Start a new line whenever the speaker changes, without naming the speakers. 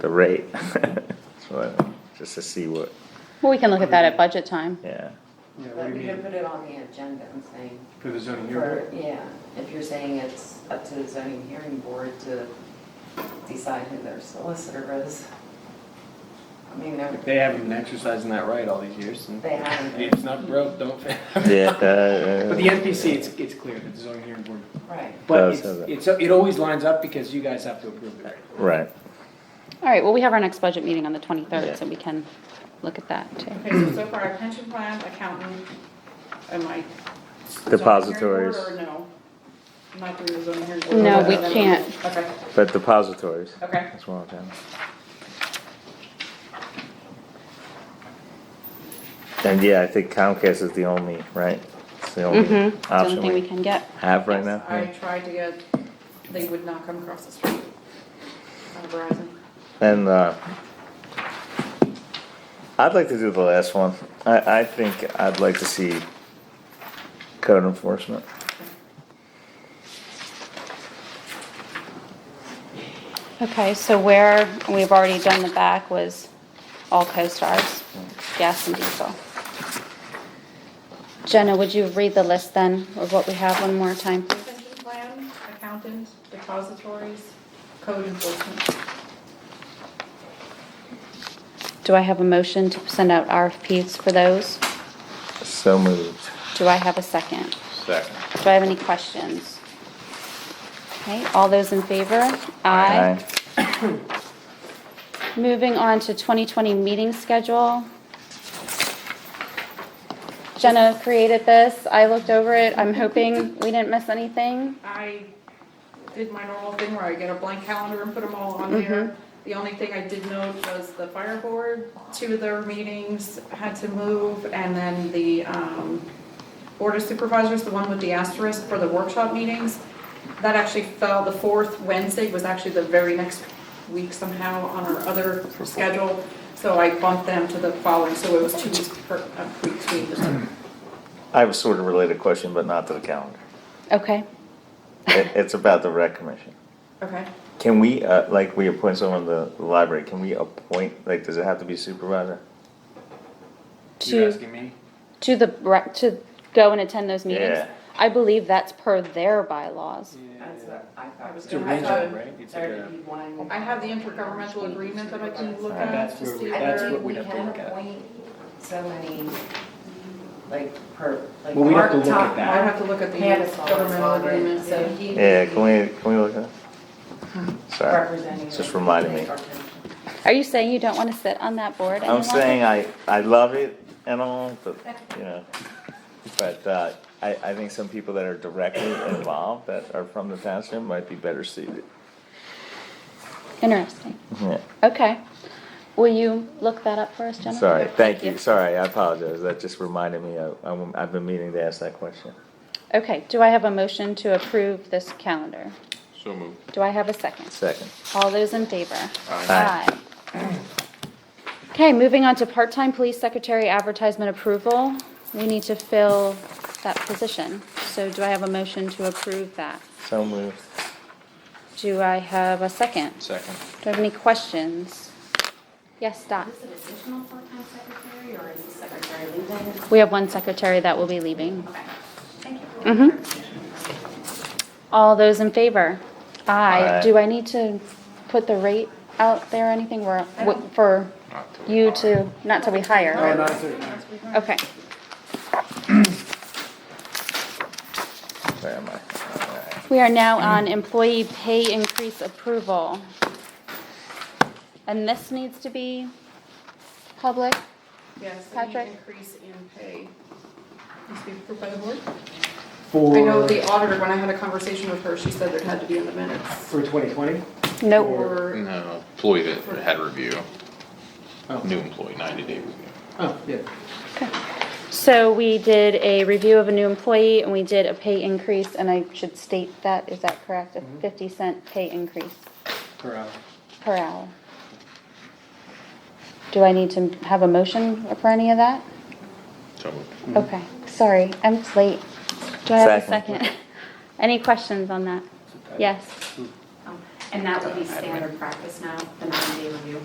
the rate. So, Just to see what,
Well, we can look at that at budget time.
yeah.
Yeah, what
But
do
we
you
can
mean,
put it on the agenda and saying,
for the zoning
for,
hearing?
yeah, if you're saying it's up to the zoning hearing board to decide who their solicitor is. I mean, they're-
If they haven't been exercising that right all these years, and
they haven't,
it's not broke, don't fix it.
Yeah, uh,
But the NPC, it's, it's clear that the zoning hearing board,
right.
but
Does
it's,
have it.
it's, it always lines up because you guys have to approve it, right?
Right,
All right, well, we have our next budget meeting on the
Yeah.
23rd, so we can look at that too.
Okay, so so far, our pension plan, accountant, and my.
Depositories.
Zoning hearing board, Or no? Not through the zoning hearing board?
No, we
Okay.
can't.
Okay,
but depositories,
okay.
that's one of them. And yeah, I think Comcast is the only, right? It's the only
Mm-hmm. It's the only
Mm-hmm. option
thing we
we
can get.
have right now.
Yes, I
yeah.
tried to get, they would not come across the street. Uh, Verizon.
And, uh, I'd like to do the last one. I, I think I'd like to see code enforcement.
Okay, so where, we've already done the back was all co-stars, gas and diesel. Jenna, would you read the list then of what we have one more time?
Pension plan, accountant, depositories, code enforcement.
Do I have a motion to send out RFPs for those?
So moved.
Do I have a second?
Second.
Do I have any questions? Okay, all those in favor?
Aye.
Moving on to 2020 meeting schedule. Jenna created this. I looked over it. I'm hoping we didn't miss anything.
I did my normal thing where I get a blank calendar and put them all on there. The only thing I did note was the fire board, two of their meetings had to move, and then the, um, board of supervisors, the one with the asterisk for the workshop meetings, that actually fell, the fourth Wednesday was actually the very next week somehow on our other schedule, so I bumped them to the following, so it was two weeks per, uh, weeks, we just-
I have a sort of related question, but not to the calendar.
Okay,
It, it's about the rec commission.
okay.
Can we, uh, like, we appoint someone to the library, can we appoint, like, does it have to be supervisor?
You're
to,
asking me?
to the, rec- to go and attend those meetings.
Yeah.
I believe that's per their bylaws.
That's what I thought.
It's
a
I
regional,
thought
right? It's
there
like a-
would be one-
I have the intergovernmental agreement that I can look
Alright,
at
that's
to
where we-
see.
I
That's
where-
mean,
what
we
we'd have to
can
look at.
appoint so many, like, per, like.
Well, we'd have to
Mark
look at
Top-
that.
I'd have to look at the
Hannah's on this
governmental
one, right?
agreement,
So
so.
he would
Yeah,
be
can we, can we look at it? Sorry,
Representing.
just
the-
reminded me.
Are you saying you don't want to sit on that board anymore?
I'm saying I, I love it and all, but, you know, but, uh, I, I think some people that are directly involved, that are from the township, might be better suited.
Interesting.
Yeah,
Okay. Will you look that up for us, Jenna?
sorry, thank you, sorry, I apologize, that just reminded me, I, I'm- I've been meaning to ask that question.
Okay, do I have a motion to approve this calendar?
So moved.
Do I have a second?
Second,
All those in favor?
Aye.
Aye. Okay, moving on to part-time police secretary advertisement approval. We need to fill that position. So do I have a motion to approve that?
so moved.
Do I have a second? Do
Second.
I have any questions? Yes, Dot?
Is it additional full-time secretary or is the secretary leaving?
We have one secretary that will be leaving. Mm-hmm.
Okay, thank you.
All those in favor? Aye.
Aye.
Do I need to put the rate out there or anything where, for
Not till we
you
hire.
to, not till we hire?
Oh, no, it's a-
Okay.
Where am I? All right.
We are now on employee pay increase approval. And this needs to be public.
Yes, any
Patrick?
increase in pay needs to be approved by the board.
For,
I know the auditor, when I had a conversation with her, she said it had to be in the minutes.
for twenty twenty?
Nope.
Or,
No, employee that had review,
Oh,
new employee, ninety day review.
oh, yeah.
So we did a review of a new employee and we did a pay increase, and I should state that, is that correct? A fifty cent pay increase
Per hour.
per hour. Do I need to have a motion for any of that?
So moved.
Okay, sorry, I'm just late. Do I have a
Second.
um,
second? Any questions on that? Yes.
And that would be standard practice now, the ninety-day review.